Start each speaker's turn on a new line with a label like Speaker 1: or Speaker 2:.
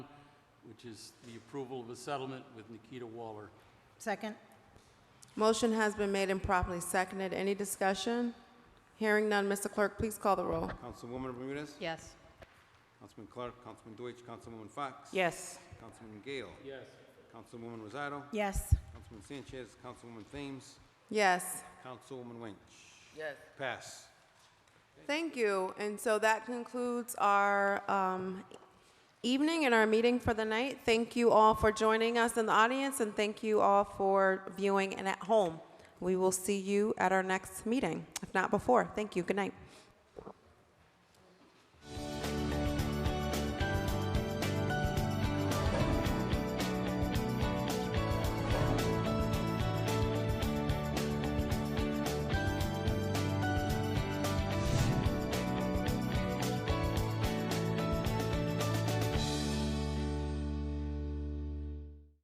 Speaker 1: which is the approval of a settlement with Nikita Waller.
Speaker 2: Second?
Speaker 3: Motion has been made and properly seconded. Any discussion? Hearing none, Mr. Clerk, please call the roll.
Speaker 4: Councilwoman Bermudez?
Speaker 2: Yes.
Speaker 4: Councilman Clark, Councilman Deutsch, Councilwoman Fox?
Speaker 2: Yes.
Speaker 4: Councilman Gale?
Speaker 1: Yes.
Speaker 4: Councilwoman Rosado?
Speaker 2: Yes.
Speaker 4: Councilman Sanchez, Councilwoman Thames,
Speaker 3: Yes.
Speaker 4: Councilwoman Wench? Yes. Pass.
Speaker 3: Thank you. And so that concludes our um, evening and our meeting for the night. Thank you all for joining us in the audience, and thank you all for viewing and at home. We will see you at our next meeting, if not before. Thank you. Good night.